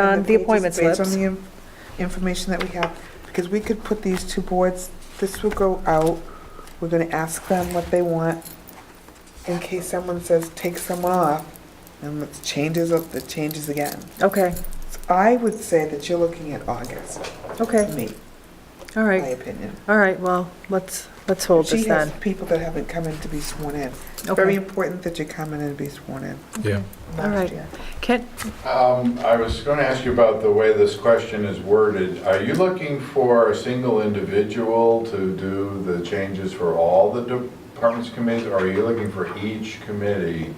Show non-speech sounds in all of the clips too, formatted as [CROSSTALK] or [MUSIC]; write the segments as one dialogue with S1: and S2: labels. S1: on Uh, the
S2: pages
S1: appointment
S2: Based on
S1: slips.
S2: the in- information that we have, because we could put these two boards, this will go out, we're gonna ask them what they want, in case someone says, take someone off, and it changes, up- it changes again.
S1: Okay,
S2: I would say that you're looking at August, to
S1: okay,
S2: me,
S1: all
S2: my
S1: right,
S2: opinion.
S1: all right, well, let's, let's hold
S2: She
S1: this
S2: has
S1: then.
S2: people that haven't come in to be sworn in.
S1: Okay.
S2: Very important that you come in and be sworn in.
S3: Yeah.
S1: All right. Can,
S4: Um, I was going to ask you about the way this question is worded. Are you looking for a single individual to do the changes for all the departments committees? Or are you looking for each committee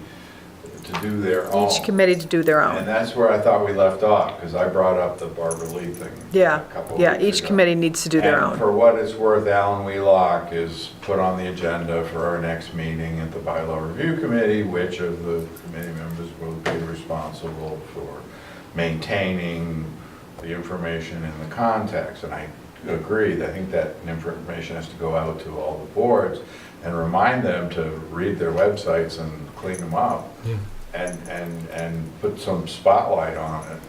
S4: to do their own?
S1: each committee to do their
S4: Oh. And
S1: own.
S4: that's where I thought we left off, because I brought up the Barbara Lee thing.
S1: Yeah,
S4: a couple
S1: yeah,
S4: weeks
S1: each
S4: ago.
S1: committee needs to do their
S4: And
S1: own.
S4: for what it's worth, Alan Wheelock is put on the agenda for our next meeting at the bylaw review committee, which of the committee members will be responsible for maintaining the information in the context. And I agree, I think that information has to go out to all the boards and remind them to read their websites and clean them up
S3: Yeah.
S4: and, and, and put some spotlight on it.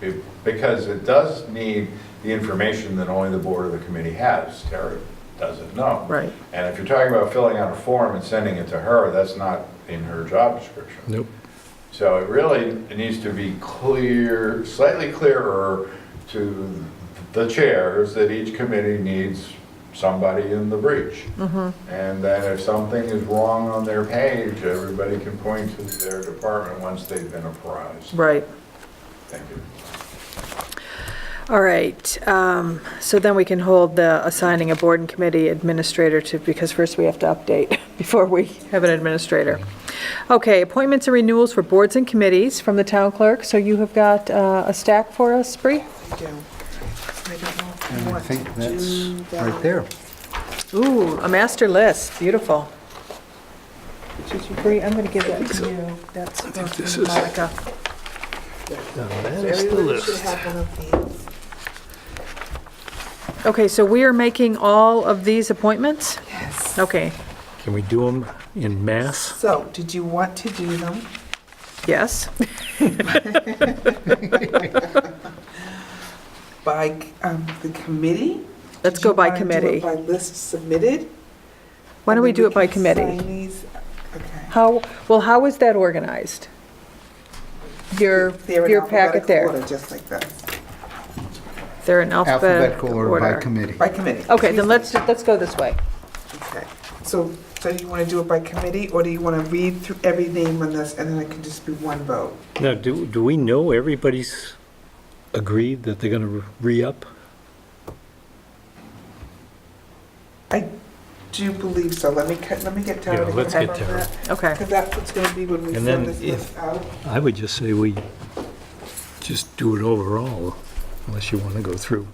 S4: Be- Because it does need the information that only the board or the committee has. Tara doesn't know.
S1: Right.
S4: And if you're talking about filling out a form and sending it to her, that's not in her job description.
S3: Nope.
S4: So it really needs to be clear, slightly clearer to the chairs that each committee needs somebody in the breach. And that if something is wrong on their page, everybody can point to their department once they've been apprised.
S1: Right,
S4: Thank you.
S1: all right, um, so then we can hold the assigning a board and committee administrator to, because first we have to update [LAUGHS] before we have an administrator. Okay, appointments and renewals for boards and committees from the town clerk, so you have got uh, a stack for us, Bree?
S2: Yeah. I don't know if
S5: And I
S2: want
S5: think
S2: to
S5: that's
S2: do
S5: right
S2: that.
S5: there.
S1: Ooh, a master list, beautiful. Bree, I'm going to give that to you. That's from Monica.
S2: So Everybody should have one of these.
S1: Okay, so we are making all of these appointments?
S2: Yes.
S1: Okay,
S3: Can we do them in mass?
S2: So, did you want to do them?
S1: yes,
S2: by um, the committee?
S1: let's
S2: Did
S1: go
S2: you
S1: by
S2: wanna do it
S1: committee.
S2: by list submitted?
S1: Why don't
S2: And
S1: we
S2: then
S1: do it by
S2: can
S1: committee?
S2: sign these- Okay.
S1: How, well, how is that organized? Your,
S2: They're in
S1: your packet
S2: alphabetical
S1: there.
S2: order, Just like that,
S1: They're in alphabetical
S5: Alphabetical order by
S1: order.
S5: committee.
S2: by committee.
S1: Okay, then let's, let's go this way.
S2: Okay. So, so you want to do it by committee, or do you want to read through every name on this, and then it can just be one vote?
S3: Now, do, do we know everybody's agreed that they're going to re-up?
S2: I do believe so, let me, cut- let me get Tara
S3: Yeah,
S2: to
S3: let's
S2: confirm
S3: get Tara.
S2: that.
S1: Okay,
S2: Because that's what's going to be when we
S3: And
S2: send
S3: then
S2: this list out.
S3: I would just say we just do it overall, unless you want to go through.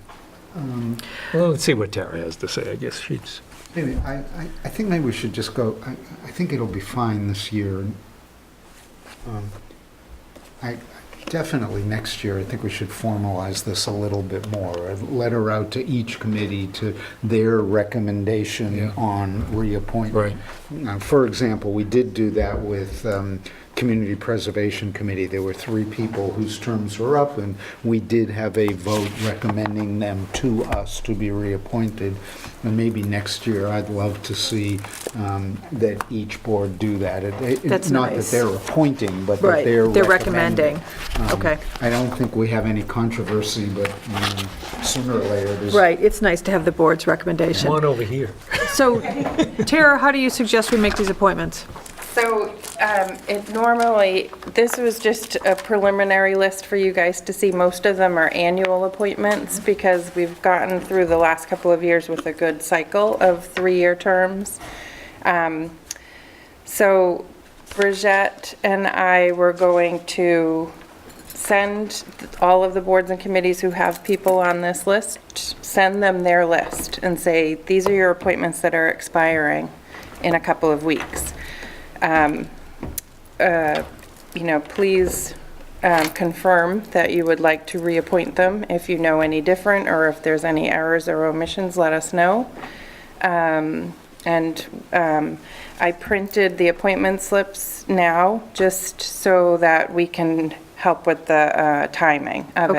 S5: Um,
S3: Well, let's see what Tara has to say, I guess she's,
S5: Maybe, I, I- I think maybe we should just go, I, I think it'll be fine this year. Um, I, definitely next year, I think we should formalize this a little bit more. A letter out to each committee to their recommendation
S3: Yeah.
S5: on reappointment.
S3: right,
S5: Now, For example, we did do that with um, Community Preservation Committee. There were three people whose terms were up, and we did have a vote recommending them to us to be reappointed. And maybe next year, I'd love to see um, that each board do that. It- it-
S1: That's
S5: Not that
S1: nice.
S5: they're appointing, but
S1: right,
S5: that they're
S1: they're
S5: recommending.
S1: recommending.
S5: Um,
S1: Okay.
S5: I don't think we have any controversy, but um, sooner or later, there's...
S1: Right, it's nice to have the board's recommendation.
S3: come on over here.
S1: So, Tara, how do you suggest we make these appointments?
S6: So um, it normally, this was just a preliminary list for you guys to see. Most of them are annual appointments because we've gotten through the last couple of years with a good cycle of three-year terms. Um, So Bridgette and I were going to send all of the boards and committees who have people on this list, send them their list and say, these are your appointments that are expiring in a couple of weeks. Um, uh, You know, please um, confirm that you would like to reappoint them. If you know any different, or if there's any errors or omissions, let us know. Um, And um, I printed the appointment slips now, just so that we can help with the uh, timing of it.